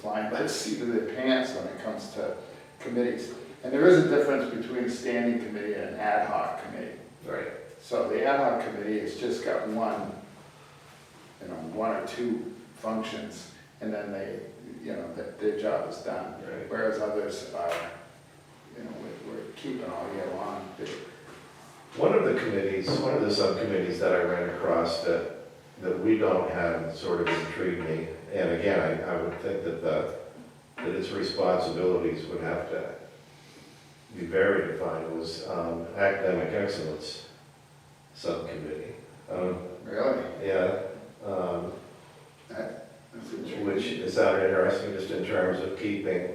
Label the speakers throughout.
Speaker 1: flying by the seat of their pants when it comes to committees. And there is a difference between a standing committee and an ad hoc committee.
Speaker 2: Right.
Speaker 1: So the ad hoc committee has just got one, you know, one or two functions, and then they, you know, their, their job is done.
Speaker 2: Right.
Speaker 1: Whereas others are, you know, we're, we're keeping all year long, They-
Speaker 2: One of the committees, one of the subcommittees that I ran across that, that we don't have sort of intrigued me, and again, I, I would think that the, that its responsibilities would have to be very defined, was um, academic excellence subcommittee. Um,
Speaker 1: really,
Speaker 2: Yeah, um,
Speaker 1: that's interesting.
Speaker 2: which is sounded interesting just in terms of keeping,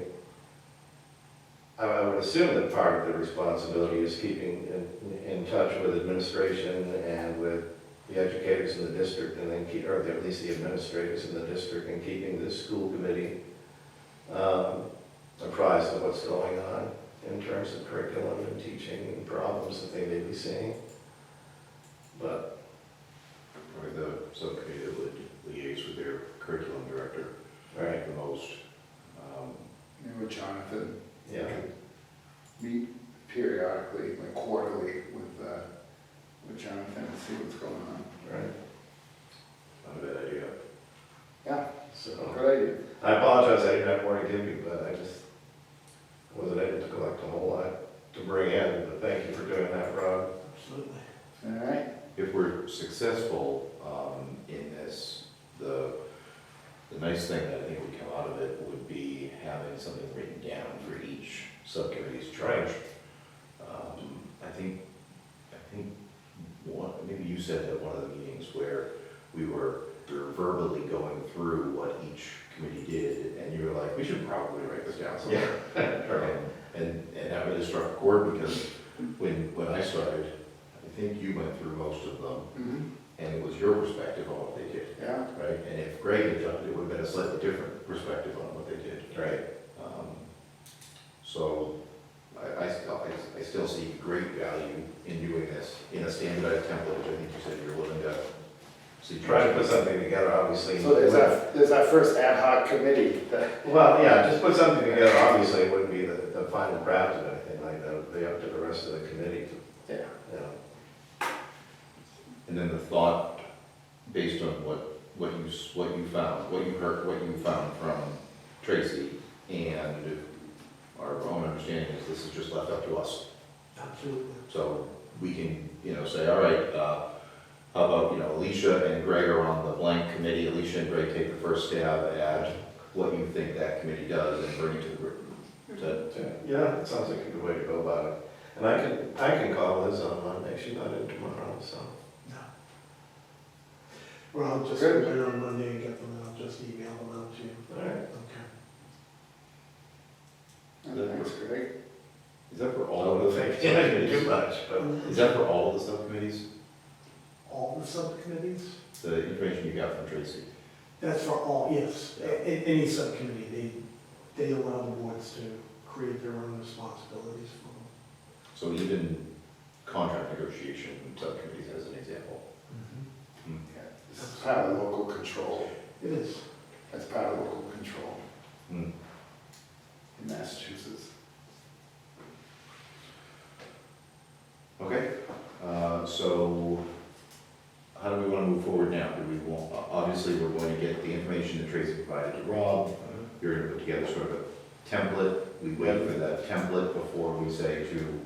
Speaker 2: I- I would assume that part of the responsibility is keeping in, in touch with administration and with the educators in the district and then keep, or at least the administrators in the district and keeping the school committee um, apprised of what's going on in terms of curriculum and teaching and problems that they may be seeing. But,
Speaker 3: Or the subcommittee that would liaise with their curriculum director
Speaker 2: right,
Speaker 3: the most. Um,
Speaker 1: You know, Jonathan,
Speaker 2: yeah,
Speaker 1: meet periodically, like quarterly with, uh, with Jonathan and see what's going on.
Speaker 2: right,
Speaker 3: Not a bad idea.
Speaker 1: Yeah,
Speaker 2: so.
Speaker 1: good idea.
Speaker 2: I apologize, I didn't have more to give you, but I just wasn't able to collect a whole lot to bring in, but thank you for doing that, Rob.
Speaker 3: Absolutely.
Speaker 1: All right,
Speaker 3: If we're successful um, in this, the, the nice thing that I think would come out of it would be having something written down for each subcommittee's charge. Um, I think, I think, one, maybe you said at one of the meetings where we were we were verbally going through what each committee did, and you were like, we should probably write this down somewhere. Um, And, and that really struck a chord because when, when I started, I think you went through most of them
Speaker 1: mhm,
Speaker 3: and it was your perspective on what they did,
Speaker 1: yeah,
Speaker 3: right? And if Greg had done it, it would have been a slightly different perspective on what they did.
Speaker 2: Right,
Speaker 3: Um, So I, I still, I- I still see great value in doing this in a standardized template, which I think you said you're willing to see.
Speaker 2: try to put something together, obviously.
Speaker 1: so there's
Speaker 2: Mm-hmm.
Speaker 1: that, there's that first ad hoc committee that
Speaker 2: Well, yeah, just put something together, obviously, it wouldn't be the, the final draft of anything like that, it would be up to the rest of the committee,
Speaker 1: Yeah,
Speaker 2: you know.
Speaker 3: And then the thought, based on what, what you, s- what you found, what you heard, what you found from Tracy, and our own understanding is this is just left up to us.
Speaker 4: Absolutely.
Speaker 3: So we can, you know, say, all right, uh, how about, you know, Alicia and Greg are on the blank committee, Alicia and Greg take the first stab at what you think that committee does and bring it to the group. Is that-
Speaker 2: Yeah, it sounds like a good way to go about it. And I can, I can call Liz on Monday, she's not in tomorrow, so.
Speaker 4: Well, I'll just go
Speaker 1: Good.
Speaker 4: in on Monday and get them out, just email them out to you.
Speaker 2: All right,
Speaker 4: Okay.
Speaker 1: that's great.
Speaker 3: Is that for
Speaker 2: I don't think I can do much, but.
Speaker 3: Is that for all of the subcommittees,
Speaker 4: All the subcommittees?
Speaker 3: the information you got from Tracy?
Speaker 4: That's for all, yes. A- a- any subcommittee, they, they allow the boards to create their own responsibilities for them.
Speaker 3: So even contract negotiation subcommittees as an example.
Speaker 1: Mm-hmm. Yeah, This is part of local control,
Speaker 4: It is.
Speaker 1: that's part of local control
Speaker 3: Hmm.
Speaker 1: in Massachusetts.
Speaker 3: Okay, uh, so how do we want to move forward now? Do we want, o- obviously, we're going to get the information that Tracy provided to Rob.
Speaker 1: Mm-hmm.
Speaker 3: You're going to put together sort of a template. We wait for that template before we say to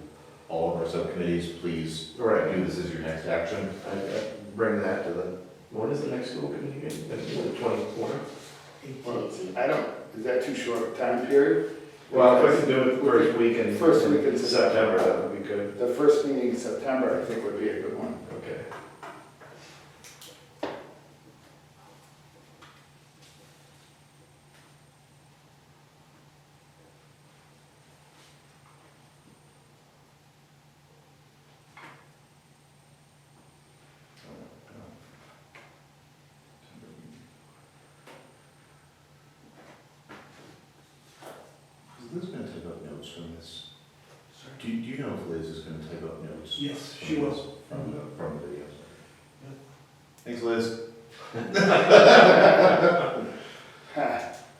Speaker 3: all of our subcommittees, please
Speaker 2: All right,
Speaker 3: do this as your next action.
Speaker 2: I- I Bring that to the, when is the next school committee meeting? That's The twenty-fourth?
Speaker 1: Well, I don't, is that too short a time period?
Speaker 2: Well, if we can do it first week in.
Speaker 1: First week in
Speaker 2: in September, that would be good.
Speaker 1: The first meeting in September, I think, would be a good one.
Speaker 2: Okay.
Speaker 3: Is Liz going to type up notes from this? Do you, do you know if Liz is going to type up notes?
Speaker 4: Yes, she was.
Speaker 3: From the, from the videos. Thanks, Liz.